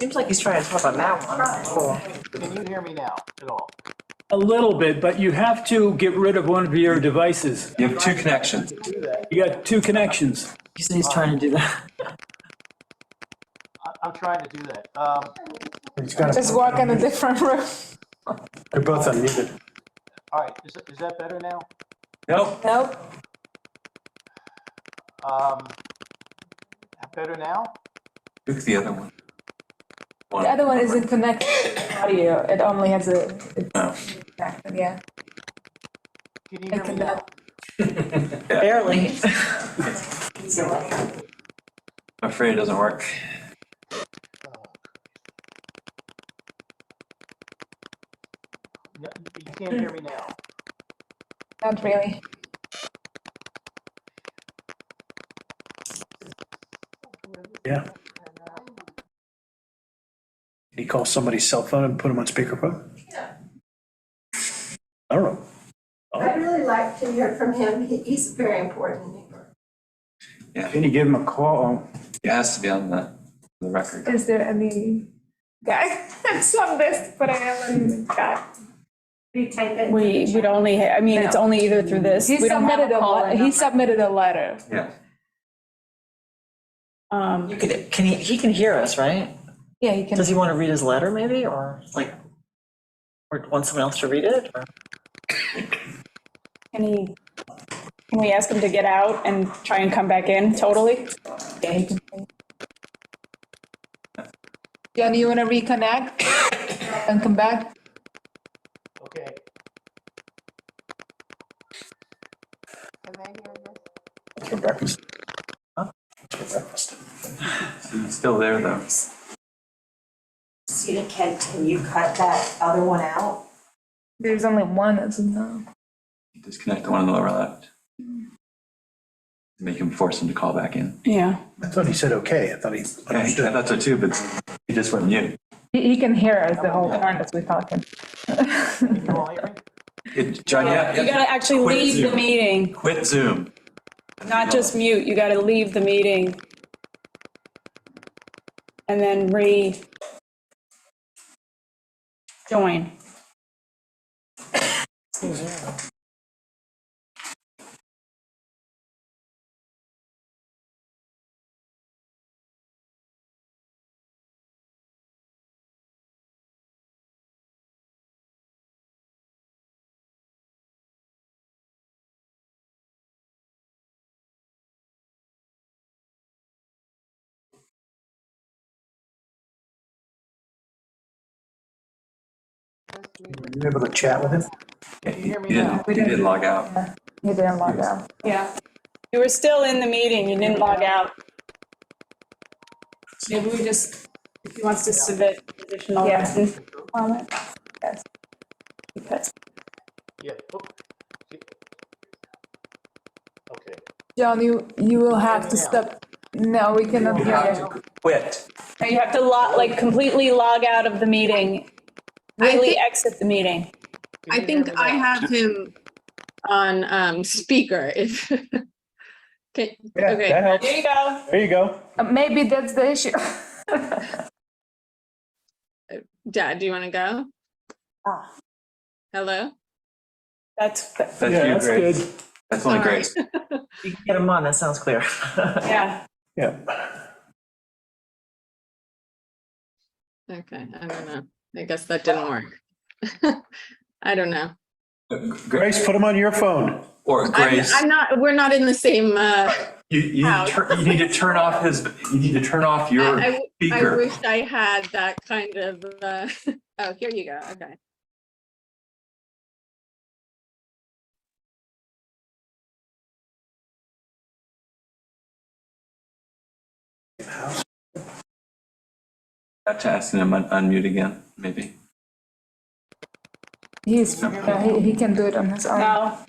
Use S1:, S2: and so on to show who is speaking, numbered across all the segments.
S1: Seems like he's trying to talk about marijuana.
S2: Can you hear me now at all?
S3: A little bit, but you have to get rid of one of your devices.
S4: You have two connections.
S2: Do that.
S3: You got two connections.
S1: He said he's trying to do that.
S2: I, I'm trying to do that. Um,
S5: He's got
S6: Just
S5: a-
S6: walk in a different room.
S5: They're both unmuted.
S2: all right, is, is that better now?
S4: Nope,
S6: Nope.
S2: Um, better now?
S4: took the other one.
S6: The other one isn't connected to audio. It only has a. It's
S4: No.
S6: connected, yeah.
S2: Can you
S6: It
S2: hear me now?
S6: cannot.
S1: Barely.
S4: I'm afraid it doesn't work.
S2: No, You can't hear me now.
S6: Not really.
S5: Yeah. He calls somebody's cell phone and put him on speakerphone? I don't know.
S7: I'd really like to hear from him. He- He's a very important neighbor.
S5: Can you give him a call? Oh.
S4: It has to be on the, the record.
S6: Is there any guy? It's on this, but I haven't got.
S8: We would only, ha- I mean, it's only either through this.
S6: He
S8: We don't have
S6: submitted a,
S8: call-in
S6: le-
S8: number.
S6: he submitted a letter.
S4: Yeah.
S8: Um,
S1: You could, can he, he can hear us, right?
S6: Yeah, he can.
S1: Does he want to read his letter maybe, or like, or want someone else to read it? or-
S8: Can he, can we ask him to get out and try and come back in totally?
S6: Yeah, he can. John, you wanna reconnect and come back?
S2: Okay.
S5: For breakfast. For breakfast.
S4: It's Still there though.
S7: Student Kent, can you cut that other one out?
S6: There's only one, isn't there?
S4: Disconnect the one on the lower left. Make him force him to call back in.
S8: Yeah.
S5: I thought he said okay. I thought he
S4: Yeah, I
S5: understood.
S4: thought so too, but he just went mute.
S6: He, he can hear us the whole time as we talking.
S2: Can you all hear me?
S4: It- John, yeah,
S8: You
S4: yeah,
S8: gotta actually
S4: Quit
S8: leave the
S4: Zoom.
S8: meeting,
S4: quit Zoom.
S8: not just mute. You gotta leave the meeting. And then re. Join.
S5: Were you able to chat with him?
S4: Yeah, He he
S2: hear me
S4: didn't,
S2: now?
S4: he didn't log out.
S6: He didn't log out.
S8: Yeah. You were still in the meeting. You didn't log out. Maybe we just, if he wants to submit additional
S6: Yeah.
S8: written comment. Yes. Because
S2: Yeah. oh. Okay.
S6: John, you, you will have to
S2: Yeah.
S6: stop. No, we cannot hear you.
S4: Quit.
S8: Now you have to log, like completely log out of the meeting,
S9: I
S8: really
S9: think,
S8: exit the meeting.
S2: Can
S9: I
S2: you
S9: think
S2: hear me
S9: I
S2: now?
S9: have him on um, speaker if. Okay,
S5: Yeah,
S9: Okay.
S5: that helps.
S8: There you go.
S5: There you go.
S6: Uh, Maybe that's the issue.
S9: Dad, do you want to go? Hello?
S8: That's,
S3: Yeah,
S4: That's
S3: that's
S4: you, Grace.
S3: good.
S4: That's only
S9: Sorry.
S4: Grace.
S1: You can get him on, that sounds clear.
S8: yeah.
S5: Yeah.
S9: Okay, I don't know. I guess that didn't work. I don't know.
S4: Gra-
S5: Grace, put him on your phone.
S4: Or
S9: I'm,
S4: Grace,
S9: I'm not, we're not in the same, uh,
S4: you, you,
S9: Out.
S4: tur- you need to turn off his, you need to turn off your
S9: I- I
S4: speaker.
S9: wish I had that kind of, uh, oh, here you go. Okay.
S4: Have to ask him to un- unmute again, maybe.
S6: He's, yeah, he, he can do it on his own.
S8: No,
S2: All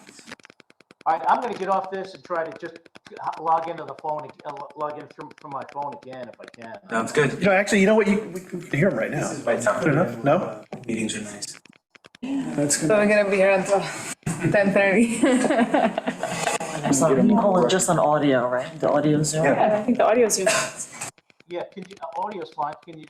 S2: right, I'm gonna get off this and try to just log into the phone, ag- uh, log in from, from my phone again if I can. Uh,
S4: Sounds good.
S5: You know, actually, you know what? You, we can hear him right now. Good enough? No?
S4: Meetings are nice.
S5: That's good.
S6: So we're gonna be here until ten thirty.
S1: So you call it just on audio, right? The audio Zoom?
S8: I think the audio's.
S2: Yeah, can you, uh, audio's fine, can you,